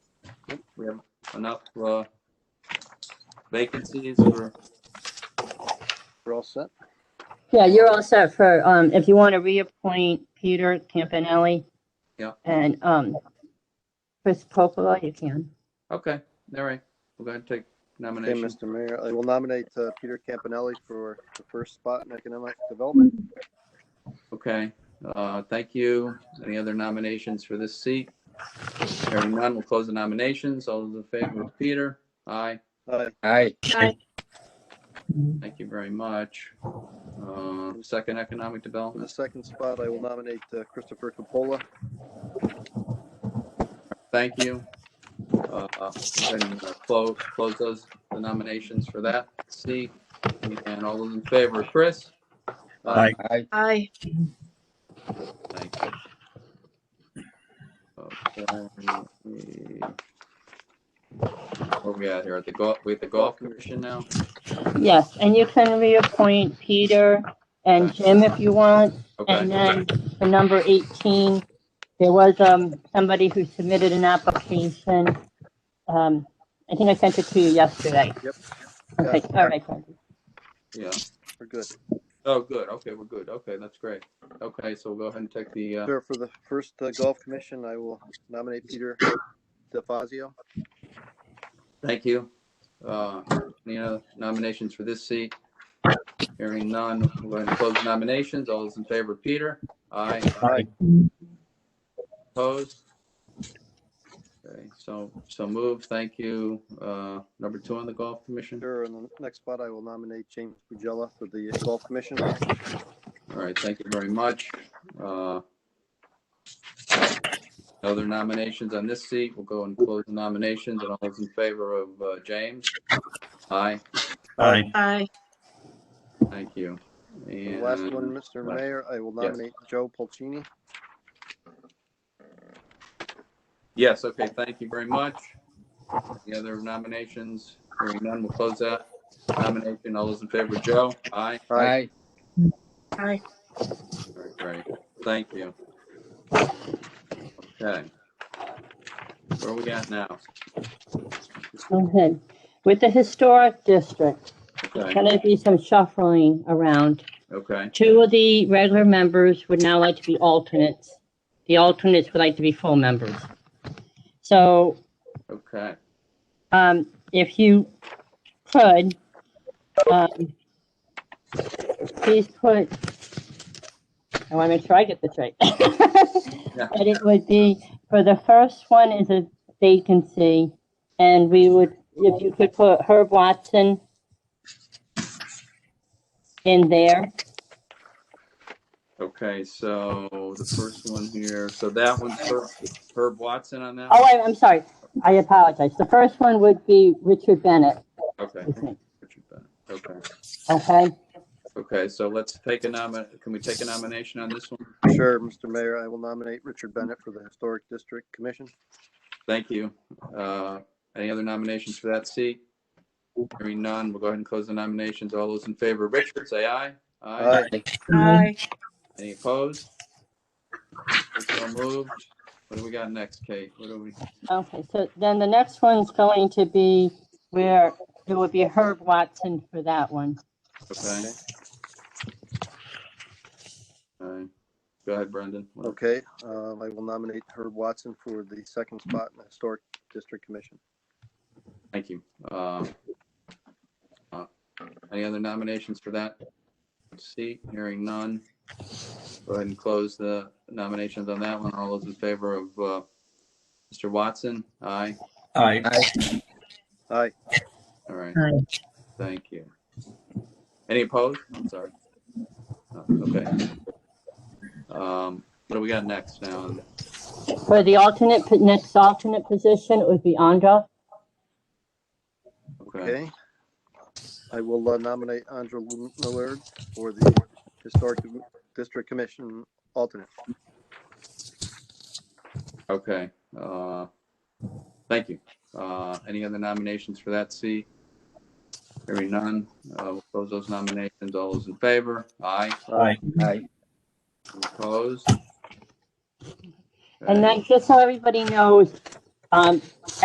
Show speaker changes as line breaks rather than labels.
we have enough uh, vacancies for,
We're all set.
Yeah, you're all set for, um, if you want to reappoint Peter Campanelli.
Yeah.
And, um, Chris Popola, you can.
okay, all right, we're going to take
Okay,
nominations.
Mr. Mayor, I will nominate uh, Peter Campanelli for the first spot in economic development.
Okay, uh, thank you. Any other nominations for this seat? Hearing none, we'll close the nominations. All those in favor of Peter? Aye,
Uh,
Aye.
thank you very much. Uh, Second Economic
For the
Development,
second spot, I will nominate uh, Christopher Coppola.
thank you. Uh, and, uh, Close, close those, the nominations for that seat. And all those in favor, Chris?
Aye.
Aye.
Aye.
Thank you. Okay. Where we at here? At the golf, we at the golf commission now?
Yes, and you can reappoint Peter and Jim if you want. And
Okay,
then for number 18, there was, um, somebody who submitted an application. Um, I think I sent it to you yesterday.
Yep.
Okay, all right. Kathy.
yeah.
We're good.
Oh, good. Okay, we're good. Okay, that's great. Okay, so we'll go ahead and take the, uh,
Sir, for the first uh, golf commission, I will nominate Peter DeFazio.
thank you. Uh, Any other nominations for this seat? Hearing none, we'll go ahead and close the nominations. All those in favor, Peter? Aye.
Aye.
Opposed? Okay, so, so move. Thank you. Uh, Number two on the golf commission.
Sir, in the next spot, I will nominate James Pugella for the golf commission.
All right, thank you very much. Uh, Other nominations on this seat, we'll go and close the nominations, and all those in favor of uh, James? Aye,
Aye.
Aye.
thank you.
The last one,
And,
Mr.
Right.
Mayor, I will nominate Joe Pulcini.
yes, okay, thank you very much. The other nominations, hearing none, we'll close that nomination. All those in favor, Joe? Aye,
Aye.
Aye.
All right, great, thank you. Okay. Where are we at now?
Go ahead. With the historic district,
Okay,
can there be some shuffling around?
okay.
Two of the regular members would now like to be alternates. The alternates would like to be full members. So
Okay,
um, if you could, um, please put, I want to make sure I get this right. But it would be, for the first one is a vacancy, and we would, if you could put Herb Watson in there.
okay, so the first one here, so that one's Herb- Herb Watson on that?
Oh,
one?
I, I'm sorry. I apologize. The first one would be Richard Bennett,
Okay.
I think.
Richard Bennett. Okay,
Okay?
okay, so let's take a nomin, can we take a nomination on this one?
Sure, Mr. Mayor, I will nominate Richard Bennett for the historic district commission.
Thank you. Uh, Any other nominations for that seat? Hearing none, we'll go ahead and close the nominations. All those in favor, Richard, say aye.
Aye.
Aye.
Any opposed? So moved. What do we got next, Kate? What do we,
Okay, so then the next one's going to be where it would be Herb Watson for that one.
okay? All right, go ahead, Brendan. What-
Okay, um, I will nominate Herb Watson for the second spot in the historic district commission.
Thank you. Uh, uh, Any other nominations for that seat? Hearing none. Go ahead and close the nominations on that one. All those in favor of uh, Mr. Watson? Aye.
Aye.
Aye.
All right.
Aye.
Thank you. Any opposed? I'm sorry. No, Okay. Um, What do we got next now?
For the alternate, po- next alternate position, it would be Andra.
Okay,
Okay. I will uh, nominate Andrew Lu- Millard for the Historic District Commission alternate.
okay. Uh, Thank you. Uh, Any other nominations for that seat? Hearing none, uh, we'll close those nominations. All those in favor? Aye.
Aye.
Aye.
Opposed?
And then, just so everybody knows, um,